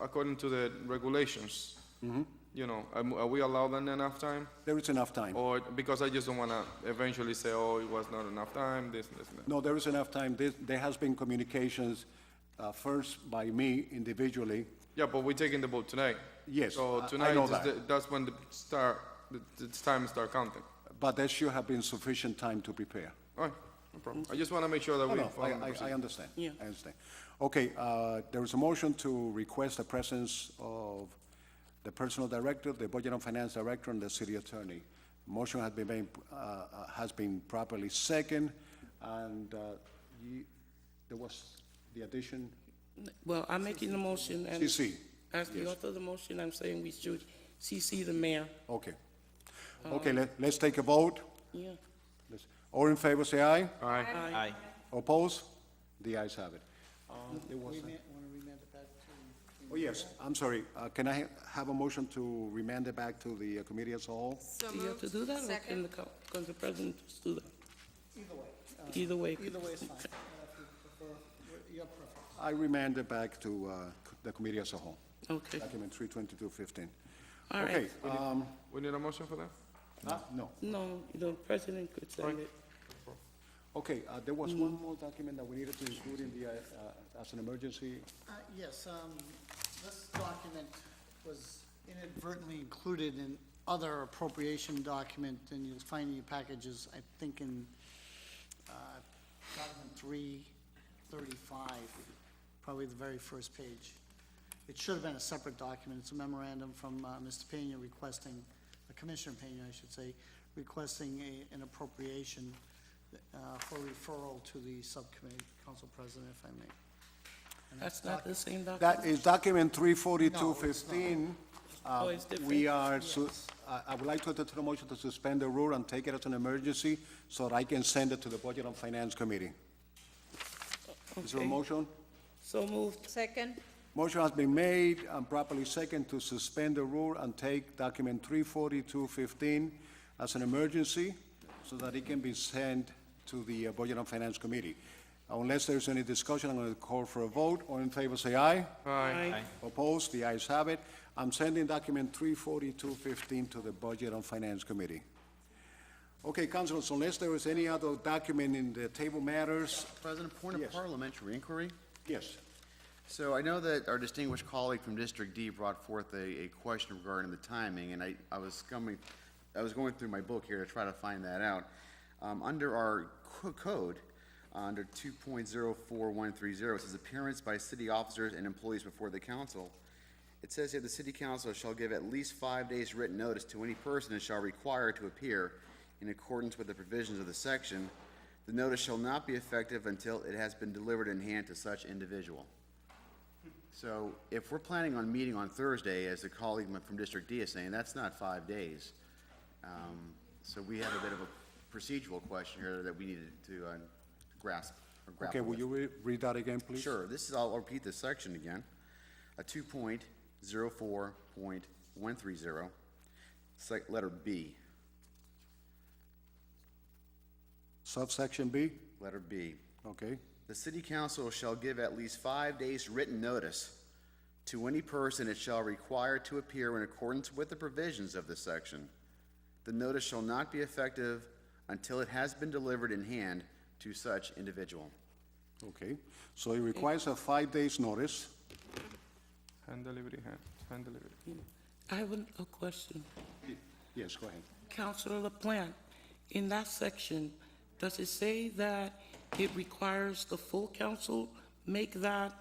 according to the regulations, Mm-hmm. you know, am- are we allowed then enough time? There is enough time. Or, because I just don't want to eventually say, oh, it was not enough time, this, this, and that. No, there is enough time. There, there has been communications, uh, first by me individually. Yeah, but we're taking the vote tonight. Yes, I- So I tonight, know is that. the- that's when the start, the- the time start counting. But there should have been sufficient time to prepare. All right, no problem. I just want to make sure that No, we no, I, follow the I, I procedure. understand. Yeah. I understand. Okay, uh, there is a motion to request the presence of the personal director, the budget and finance director, and the city attorney. Motion has been made, uh, uh, has been properly second, and, uh, you, there was the addition, Well, I'm making the motion and. CC, As the author of the motion, I'm saying we should CC the mayor. okay. Okay, let, let's take a vote. Yeah. Let's- All in favor, say aye. Aye. Aye. Oppose? The ayes have it. Oh, yes, I'm sorry. Uh, Can I ha- have a motion to remand it back to the uh, committee as a whole? So Do you have to moved. do that or can Second. the, co- can the president just do that? Either way. Either way. Either way is fine, if you prefer, your preference. I remand it back to uh, c- the committee as a whole, Okay, document 32215. all right. Okay, um, We need a motion for that? huh? no. No, the president could send it. Okay, uh, there Mm. was one more document that we needed to include in the, uh, uh, as an emergency. Uh, Yes, um, this document was inadvertently included in other appropriation document, and you'll find in your packages, I think in uh, document three thirty-five, probably the very first page. It should have been a separate document. It's a memorandum from uh, Mr. Pena requesting, uh, Commissioner Pena, I should say, requesting a- an appropriation uh, for referral to the subcommittee, Council President, if I may. That's not the same document. That is document 34215. Oh, it's Um, We different. are, su- uh, I I would like to entertain a motion to suspend the rule and take it as an emergency so that I can send it to the Budget and Finance Committee. Is there a Okay. motion? So moved. Second, Motion has been made and properly second to suspend the rule and take document 34215 as an emergency so that it can be sent to the uh, Budget and Finance Committee. Unless there's any discussion, I'm going to call for a vote. All in favor, say aye. Aye. Opposed? The ayes have it. I'm sending document 34215 to the Budget and Finance Committee. Okay, councilors, unless there is any other document in the table matters, President, point of Yes. parliamentary inquiry. yes. So I know that our distinguished colleague from District D brought forth a, a question regarding the timing, and I, I was coming, I was going through my book here to try to find that out. Um, under our co- code, uh, under two point zero four one three zero, it says appearance by city officers and employees before the council. It says here, the city council shall give at least five days' written notice to any person it shall require to appear in accordance with the provisions of the section. The notice shall not be effective until it has been delivered in hand to such individual. So if we're planning on meeting on Thursday, as the colleague from District D is saying, that's not five days. Um, So we have a bit of a procedural question here that we needed to uh, grasp or Okay, grapple will with. you re- read that again, please? Sure, this is, I'll repeat this section again. A two point zero four point one three zero, sec, letter B, Subsection B? letter B. Okay. The city council shall give at least five days' written notice to any person it shall require to appear in accordance with the provisions of this section. The notice shall not be effective until it has been delivered in hand to such individual. Okay, so it requires a five days' notice. Hand delivery, hand, hand delivery. I have an- a question. Yes, go ahead. Counselor LaPlante, in that section, does it say that it requires the full council make that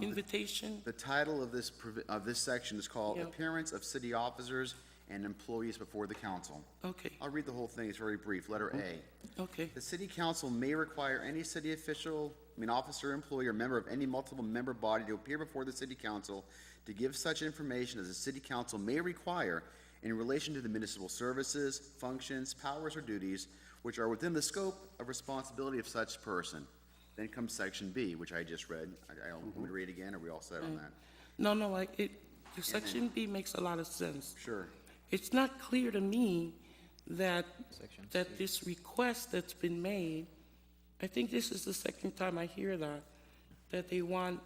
invitation? The title of this, provi- of this section is called Yeah. Appearance of City Officers and Employees Before the Council. Okay, I'll read the whole thing, it's very brief, letter A. okay, The city council may require any city official, I mean officer, employee, or member of any multiple member body to appear before the city council to give such information as the city council may require in relation to the municipal services, functions, powers, or duties which are within the scope of responsibility of such person. Then comes section B, which I just read. I, I don't, want me to read it again, or we all set on that? no, no, I, it, the section B makes a lot of sense. Sure. It's not clear to me that, that this request that's been made, I think this is the second time I hear that, that they want